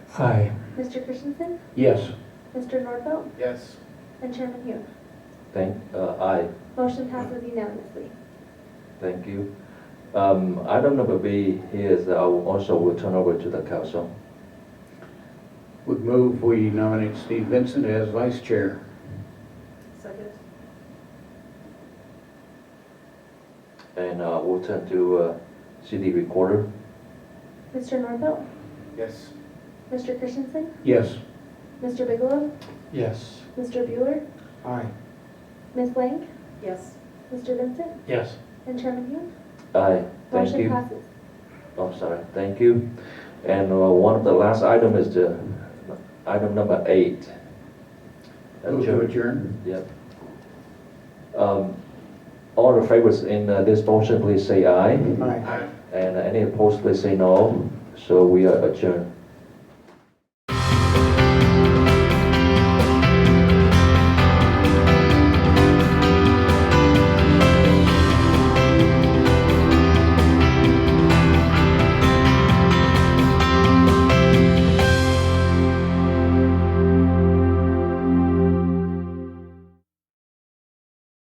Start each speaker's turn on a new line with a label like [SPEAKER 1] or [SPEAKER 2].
[SPEAKER 1] Aye.
[SPEAKER 2] Mr. Christensen,
[SPEAKER 3] Yes.
[SPEAKER 2] Mr. Nordfeld,
[SPEAKER 4] Yes.
[SPEAKER 2] and Chairman Hume.
[SPEAKER 3] Thank, uh, aye,
[SPEAKER 2] Motion passes unanimously.
[SPEAKER 3] thank you. Um, Item number B is, uh, I will also will turn over to the council.
[SPEAKER 4] Would move we nominate Steve Vincent as vice chair.
[SPEAKER 2] Second.
[SPEAKER 3] And uh, we'll turn to uh, city recorder.
[SPEAKER 2] Mr. Nordfeld,
[SPEAKER 4] Yes.
[SPEAKER 2] Mr. Christensen,
[SPEAKER 4] Yes.
[SPEAKER 2] Mr. Bigelow,
[SPEAKER 1] Yes.
[SPEAKER 2] Mr. Bueller,
[SPEAKER 1] Aye.
[SPEAKER 2] Ms. Lang,
[SPEAKER 5] Yes.
[SPEAKER 2] Mr. Vincent,
[SPEAKER 1] Yes.
[SPEAKER 2] and Chairman Hume.
[SPEAKER 3] Aye, thank
[SPEAKER 2] Motion
[SPEAKER 3] you. Oh,
[SPEAKER 2] passes.
[SPEAKER 3] I'm sorry, thank you. And uh, one of the last item is the, item number eight. Uh,
[SPEAKER 4] Move to
[SPEAKER 3] Chair-
[SPEAKER 4] adjourn.
[SPEAKER 3] Yep. Um, All the favors in uh, this motion, please say aye.
[SPEAKER 1] Aye.
[SPEAKER 3] And any opposed, please say no. So we are adjourned.